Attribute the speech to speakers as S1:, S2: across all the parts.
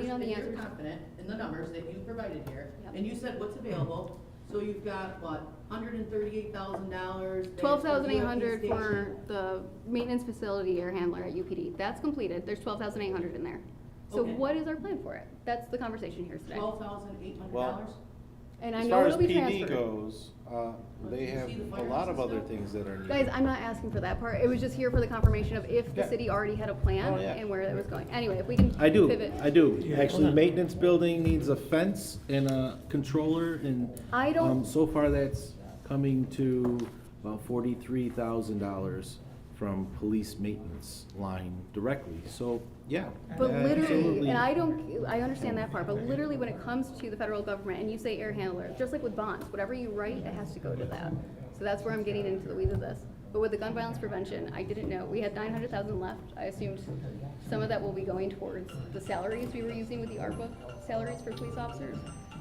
S1: You know the answer.
S2: You're confident in the numbers that you provided here,
S1: Yep.
S2: and you said what's available, so you've got, what, hundred and thirty-eight thousand dollars?
S1: Twelve thousand eight hundred for the maintenance facility air handler at UPD, that's completed, there's twelve thousand eight hundred in there. So
S2: Okay.
S1: what is our plan for it? That's the conversation here today.
S2: Twelve thousand eight hundred dollars?
S3: Well,
S1: And I
S3: As
S1: know
S3: far as
S1: it'll be
S3: PD
S1: transferred.
S3: goes, uh, they
S2: You
S3: have
S2: see the
S3: a
S2: fire
S3: lot of other
S2: system?
S3: things that are
S1: Guys,
S3: needed.
S1: I'm not asking for that part, it was just here for the confirmation of if the
S3: Yeah.
S1: city already had a plan
S3: Oh, yeah.
S1: and where it was going. Anyway, if we can
S4: I do,
S1: pivot.
S4: I do. Actually, maintenance building needs a fence and a controller and.
S1: I don't-
S4: um, So far, that's coming to about forty-three thousand dollars from police maintenance line directly, so, yeah.
S1: But literally,
S4: absolutely.
S1: and I don't, I understand that part, but literally when it comes to the federal government and you say air handler, just like with bonds, whatever you write, it has to go to that. So that's where I'm getting into the weeds of this. But with the gun violence prevention, I didn't know, we had nine hundred thousand left. I assumed some of that will be going towards the salaries we were using with the ARPA salaries for police officers.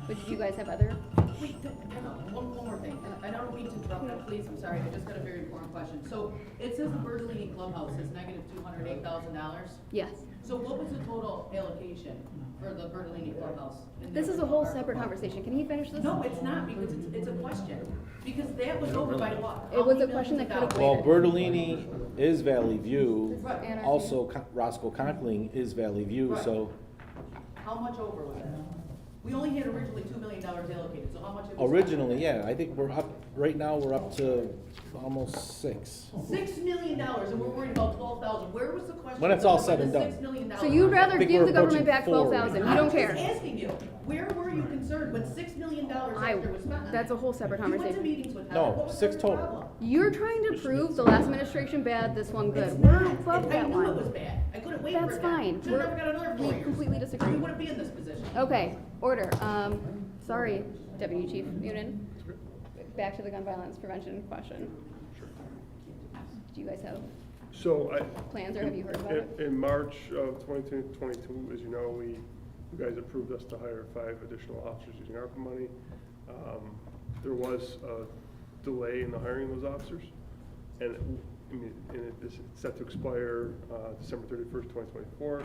S1: But did you guys have other?
S2: Wait, th- hang on, one, one more thing, and I don't mean to interrupt, but please, I'm sorry, I just got a very important question. So, it says the Bertolini Clubhouse is negative two hundred eight thousand dollars,
S1: Yes.
S2: so what was the total allocation for the Bertolini Clubhouse? in
S1: This
S2: the
S1: is a whole
S2: original
S1: separate
S2: ARPA?
S1: conversation. Can he finish this?
S2: No, it's not, because it's, it's a question, because that was over by law.
S1: It was a question that could've
S3: Well,
S1: waited.
S3: Bertolini is Valley View,
S2: Right.
S1: And our-
S3: also Co- Roscoe Conkling is Valley View, so
S2: How much over was it? We only had originally two million dollars allocated, so how much? it was-
S3: originally, yeah, I think we're up, right now, we're up to almost six.
S2: Six million dollars, and we're worried about twelve thousand, where was the question?
S3: When it's all
S2: for
S3: said
S2: the
S3: and done.
S2: Six million dollars.
S1: So you'd rather
S3: think
S1: give
S3: we're
S1: the government
S3: approaching
S1: back
S3: four
S1: twelve
S3: right
S1: thousand? You
S2: I'm
S1: don't
S2: just
S1: care.
S2: asking you, where were you concerned when six million dollars
S1: I,
S2: after was spent on
S1: that's a
S2: it?
S1: whole separate
S2: You went to
S1: conversation.
S2: meetings with
S3: No,
S2: Heather, what was
S3: six
S2: her
S3: total.
S2: problem?
S1: You're trying to prove the last administration bad, this one
S2: It's
S1: good. We're
S2: not,
S1: above
S2: I
S1: that
S2: knew it was
S1: one.
S2: bad, I couldn't wait for it.
S1: That's fine.
S2: Should've
S1: We're-
S2: never got another four
S1: We
S2: years.
S1: completely
S2: You
S1: disagree.
S2: wouldn't be in this position.
S1: Okay, order. Um, sorry, Deputy Chief Munin. Back to the gun violence prevention question. Do you guys have
S5: So I.
S1: plans or have you heard about
S5: in-
S1: it?
S5: In March of 2022, as you know, we, you guys approved us to hire five additional officers using ARPA money. Um, There was a delay in the hiring of those officers. And, it- I mean, and it is set to expire uh, December 31st, 2024.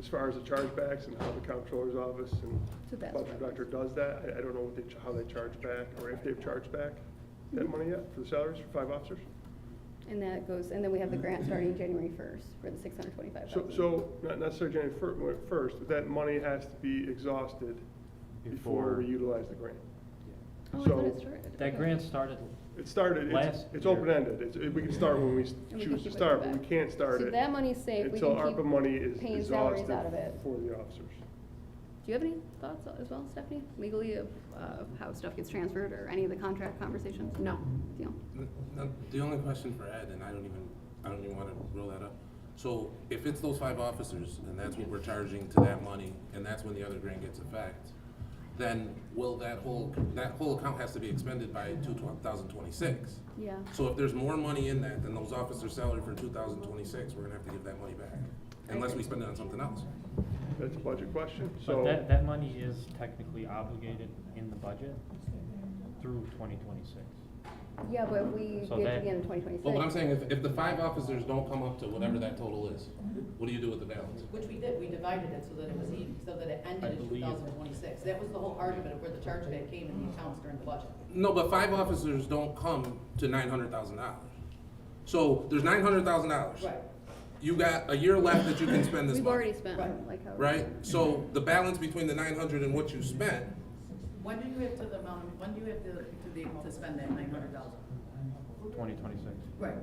S5: As far as the chargebacks and how the comptroller's office
S1: So
S5: and
S1: that's
S5: budget
S1: what-
S5: director does that, I- I don't know what they, ch- how they charge back or if they've charged back
S1: Mm-hmm.
S5: that money yet for the salaries for five officers.
S1: And that goes, and then we have the grant starting January first for the six hundred twenty-five
S5: So,
S1: thousand.
S5: so, not necessarily January fir- well, first, but that money has to be exhausted before
S6: Before.
S5: we utilize the grant.
S1: Oh, I
S5: so-
S1: thought it started.
S6: That
S1: Okay.
S6: grant started,
S5: It started, it's,
S6: Last
S5: it's
S6: year.
S5: open-ended, it's, it- we can start when we s-
S1: And we can
S5: choose
S1: keep
S5: to
S1: it
S5: start, but
S1: back.
S5: we can't start
S1: So
S5: it
S1: that money's safe. We
S5: until
S1: can
S5: ARPA money
S1: keep
S5: is
S1: paying salaries
S5: exhausted
S1: out of it.
S5: for the officers.
S1: Do you have any thoughts as well, Stephanie, legally of, uh, of how stuff gets transferred or any of the contract conversations? No. Deal.
S7: N- n- The only question for Ed, and I don't even, I don't even wanna roll that up. So if it's those five officers, and that's what we're charging to that money, and that's when the other grant gets effect, then will that whole, that whole account has to be expended by two thousand twenty-six?
S1: Yeah.
S7: So if there's more money in that than those officers' salary for two thousand twenty-six, we're gonna have to give that money back, unless we spend it on something else.
S5: That's a budget question,
S6: but
S5: so,
S6: that, that money is technically obligated in the budget through twenty twenty-six.
S1: Yeah, but if we get
S6: So
S1: to
S6: that-
S1: the end of twenty twenty-six.
S7: But what I'm saying is, if the five officers don't come up to whatever that total is, what do you do with the balance?
S2: Which we did, we divided it so that it was even, so that it
S6: I
S2: ended in two
S6: believe-
S2: thousand twenty-six. That was the whole argument of where the charge back came in the accounts during the budget.
S7: No, but five officers don't come to nine hundred thousand dollars. So there's nine hundred thousand dollars.
S2: Right.
S7: You got a year left that you can spend this
S1: We've
S7: month,
S1: already spent,
S2: Right.
S1: like, how.
S7: right? So the balance between the nine hundred and what you spent,
S2: When do you have to the amount, when do you have to, to the, to spend that nine hundred thousand?
S6: Twenty twenty-six.
S2: Right.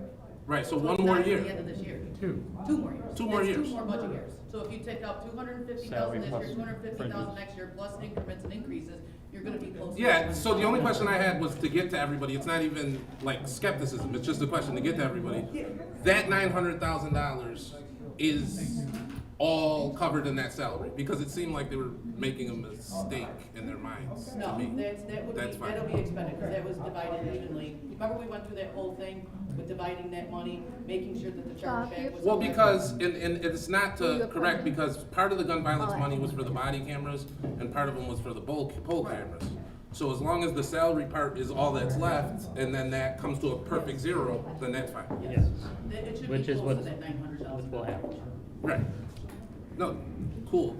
S7: right, so
S2: it's
S7: one more
S2: not to the end
S7: year.
S2: of this year. Two. Two more years.
S7: Two more
S2: It's
S7: years.
S2: Two more budget years. So if you take out two hundred and fifty
S6: Salary
S2: thousand this
S6: plus
S2: year, two hundred and fifty thousand
S6: fringes.
S2: next year, plus increments and increases, you're gonna be close. to-
S7: Yeah, so the only question I had was to get to everybody, it's not even like skepticism, it's just a question to get to everybody. That nine hundred thousand dollars is all covered in that salary, because it seemed like they were making a mistake in their minds to
S2: No,
S7: me.
S2: that's, that would
S7: That's
S2: be,
S7: fine.
S2: that'll be expended, because that was divided evenly. Remember we went through that whole thing with dividing that money, making sure that the
S1: Bob,
S2: charge
S1: do you-
S2: back was.
S7: Well, because, and, and it's not
S1: Who you
S7: to
S1: appointed?
S7: correct, because part of the gun violence
S1: Alright.
S7: money was for the body cameras, and part of them was for the pole, pole cameras. So as long as the salary part is all that's left, and then that comes to a perfect zero, then that's fine.
S6: Yes,
S2: That it should be
S6: Which is
S2: close to
S6: what's-
S2: that nine hundred
S6: which
S2: thousand.
S6: will happen.
S7: Right. No, cool.